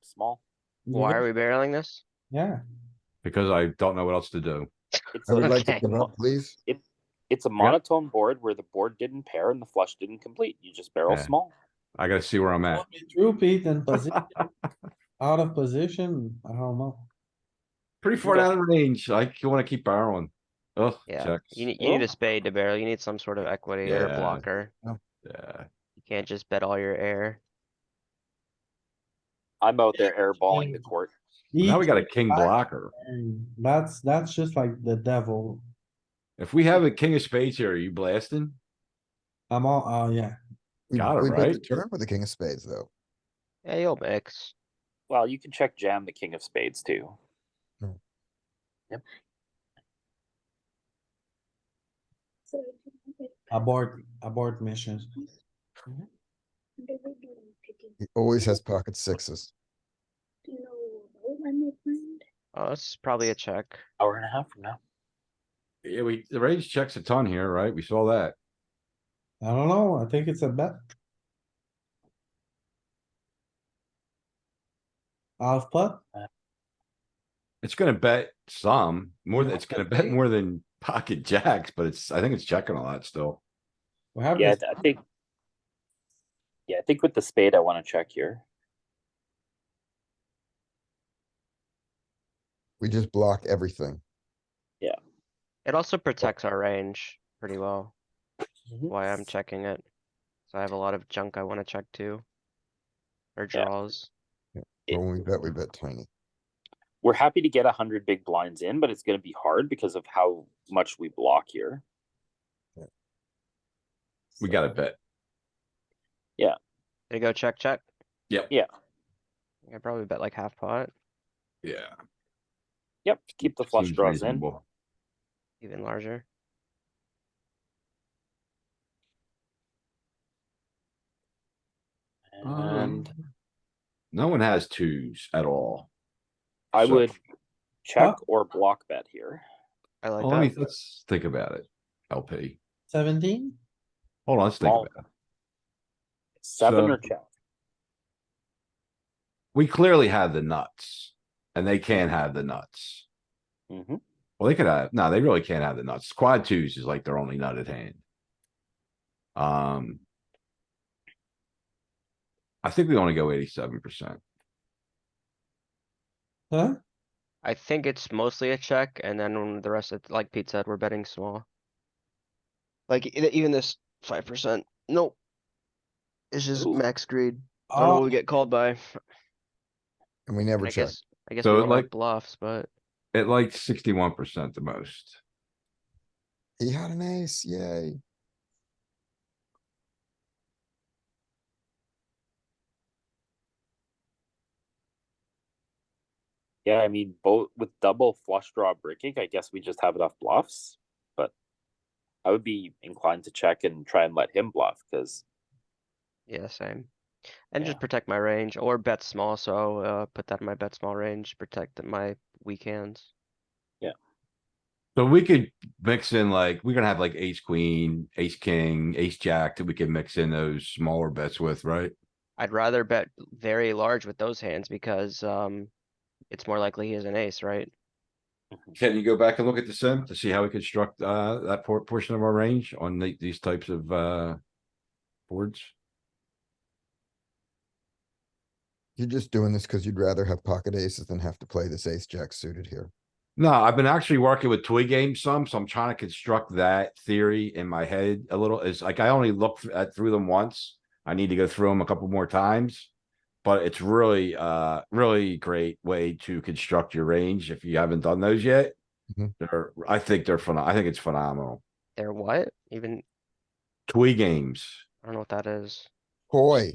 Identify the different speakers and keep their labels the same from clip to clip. Speaker 1: small.
Speaker 2: Why are we barreling this?
Speaker 3: Yeah,
Speaker 4: because I don't know what else to do.
Speaker 1: It's
Speaker 5: I would like
Speaker 1: a-
Speaker 5: to come up, please.
Speaker 1: It's a monotone board where the board didn't pair and the flush didn't complete. You just barrel
Speaker 4: Yeah.
Speaker 1: small.
Speaker 4: I gotta see where I'm at.
Speaker 3: true Pete in position, out of position, I don't know.
Speaker 4: Pretty far down the range. I wanna keep barreling. Ugh,
Speaker 2: Yeah,
Speaker 4: checks.
Speaker 2: you need, you need
Speaker 3: Oh.
Speaker 2: a spade to barrel, you need some sort of equity or
Speaker 4: Yeah.
Speaker 2: a blocker.
Speaker 4: Yeah,
Speaker 2: You can't just bet all your air.
Speaker 1: I'm out there airballing the court.
Speaker 4: now we got a king
Speaker 3: five.
Speaker 4: blocker.
Speaker 3: And That's, that's just like the devil.
Speaker 4: If we have a king of spades here, are you blasting?
Speaker 3: I'm all, oh yeah,
Speaker 5: We-
Speaker 4: Got it,
Speaker 5: we bet the
Speaker 4: right?
Speaker 5: Turn with the king of spades, though.
Speaker 2: Yeah, you'll mix.
Speaker 1: Well, you can check jam the king of spades too.
Speaker 3: abort, abort missions.
Speaker 5: He always has pocket sixes.
Speaker 2: Oh, this is probably a check.
Speaker 1: Hour and a half from now.
Speaker 4: Yeah, we, the range checks a ton here, right? We saw that.
Speaker 3: I don't know, I think it's a bet. Half pot,
Speaker 4: It's gonna bet some, more than, it's gonna bet more than pocket jacks, but it's, I think it's checking a lot still.
Speaker 3: we have
Speaker 1: Yeah,
Speaker 3: this,
Speaker 1: I think. Yeah, I think with the spade, I wanna check here.
Speaker 5: We just block everything.
Speaker 2: It also protects our range pretty well.
Speaker 1: Mhm.
Speaker 2: Why I'm checking it. So I have a lot of junk I wanna check too. Or
Speaker 1: Yeah.
Speaker 2: draws.
Speaker 5: But When we bet, we bet tiny.
Speaker 1: We're happy to get a hundred big blinds in, but it's gonna be hard because of how much we block here.
Speaker 4: We gotta bet.
Speaker 2: They go check, check.
Speaker 4: Yep.
Speaker 1: Yeah.
Speaker 2: I probably bet like half pot,
Speaker 4: Yeah.
Speaker 1: Yep, keep the flush
Speaker 4: seems
Speaker 1: draws in.
Speaker 4: reasonable.
Speaker 2: even larger.
Speaker 1: And
Speaker 4: Um, No one has twos at all.
Speaker 1: I
Speaker 4: so-
Speaker 1: would check or block bet here.
Speaker 2: I like
Speaker 4: Well, let me,
Speaker 2: that.
Speaker 4: let's think about it. LP.
Speaker 3: seventeen,
Speaker 4: Hold on, let's think
Speaker 1: Small.
Speaker 4: about it.
Speaker 1: Seven
Speaker 4: So-
Speaker 1: or check.
Speaker 4: We clearly have the nuts and they can't have the nuts.
Speaker 1: Mhm.
Speaker 4: Well, they could have, no, they really can't have the nuts. Quad twos is like their only nut at hand. Um. I think we only go eighty-seven percent.
Speaker 3: huh?
Speaker 2: I think it's mostly a check and then when the rest of, like Pete said, we're betting small. Like e- even this five percent, nope. It's just
Speaker 1: Ooh.
Speaker 2: max greed. I don't know what
Speaker 3: Oh,
Speaker 2: we get called by.
Speaker 5: And we never
Speaker 2: I
Speaker 5: check.
Speaker 2: guess, I guess we
Speaker 4: So,
Speaker 2: don't
Speaker 4: like-
Speaker 2: like bluffs, but
Speaker 4: It like sixty-one percent the most.
Speaker 5: He had an ace, yay.
Speaker 1: Yeah, I mean, both with double flush draw breaking, I guess we just have enough bluffs, but I would be inclined to check and try and let him bluff because
Speaker 2: yeah, same. And
Speaker 1: Yeah.
Speaker 2: just protect my range or bet small, so uh put that in my bet small range, protect my weak hands.
Speaker 4: So we could mix in like, we're gonna have like ace queen, ace king, ace jack that we can mix in those smaller bets with, right?
Speaker 2: I'd rather bet very large with those hands because um it's more likely he has an ace, right?
Speaker 4: Can you go back and look at the sim to see how we construct uh that por- portion of our range on the- these types of uh boards?
Speaker 5: You're just doing this because you'd rather have pocket aces than have to play this ace jack suited here.
Speaker 4: No, I've been actually working with toy games some, so I'm trying to construct that theory in my head a little. It's like I only looked at through them once. I need to go through them a couple more times. But it's really uh really great way to construct your range if you haven't done those yet.
Speaker 5: Mhm.
Speaker 4: They're I think they're phenomenal. I think it's phenomenal.
Speaker 2: They're what? Even,
Speaker 4: Toy games.
Speaker 2: I don't know what that is.
Speaker 5: Toy.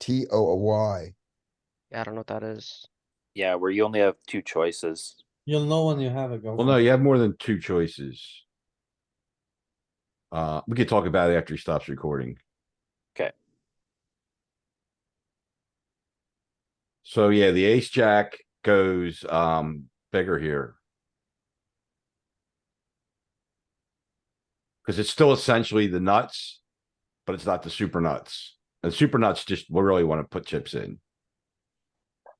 Speaker 5: T O O Y.
Speaker 2: Yeah, I don't know what that is.
Speaker 1: yeah, where you only have two choices.
Speaker 3: you'll know when you have a go.
Speaker 4: Well, no, you have more than two choices. Uh, we could talk about it after he stops recording.
Speaker 1: 'Kay.
Speaker 4: So yeah, the ace jack goes um bigger here. Cause it's still essentially the nuts, but it's not the super nuts. The super nuts just, we really want to put chips in.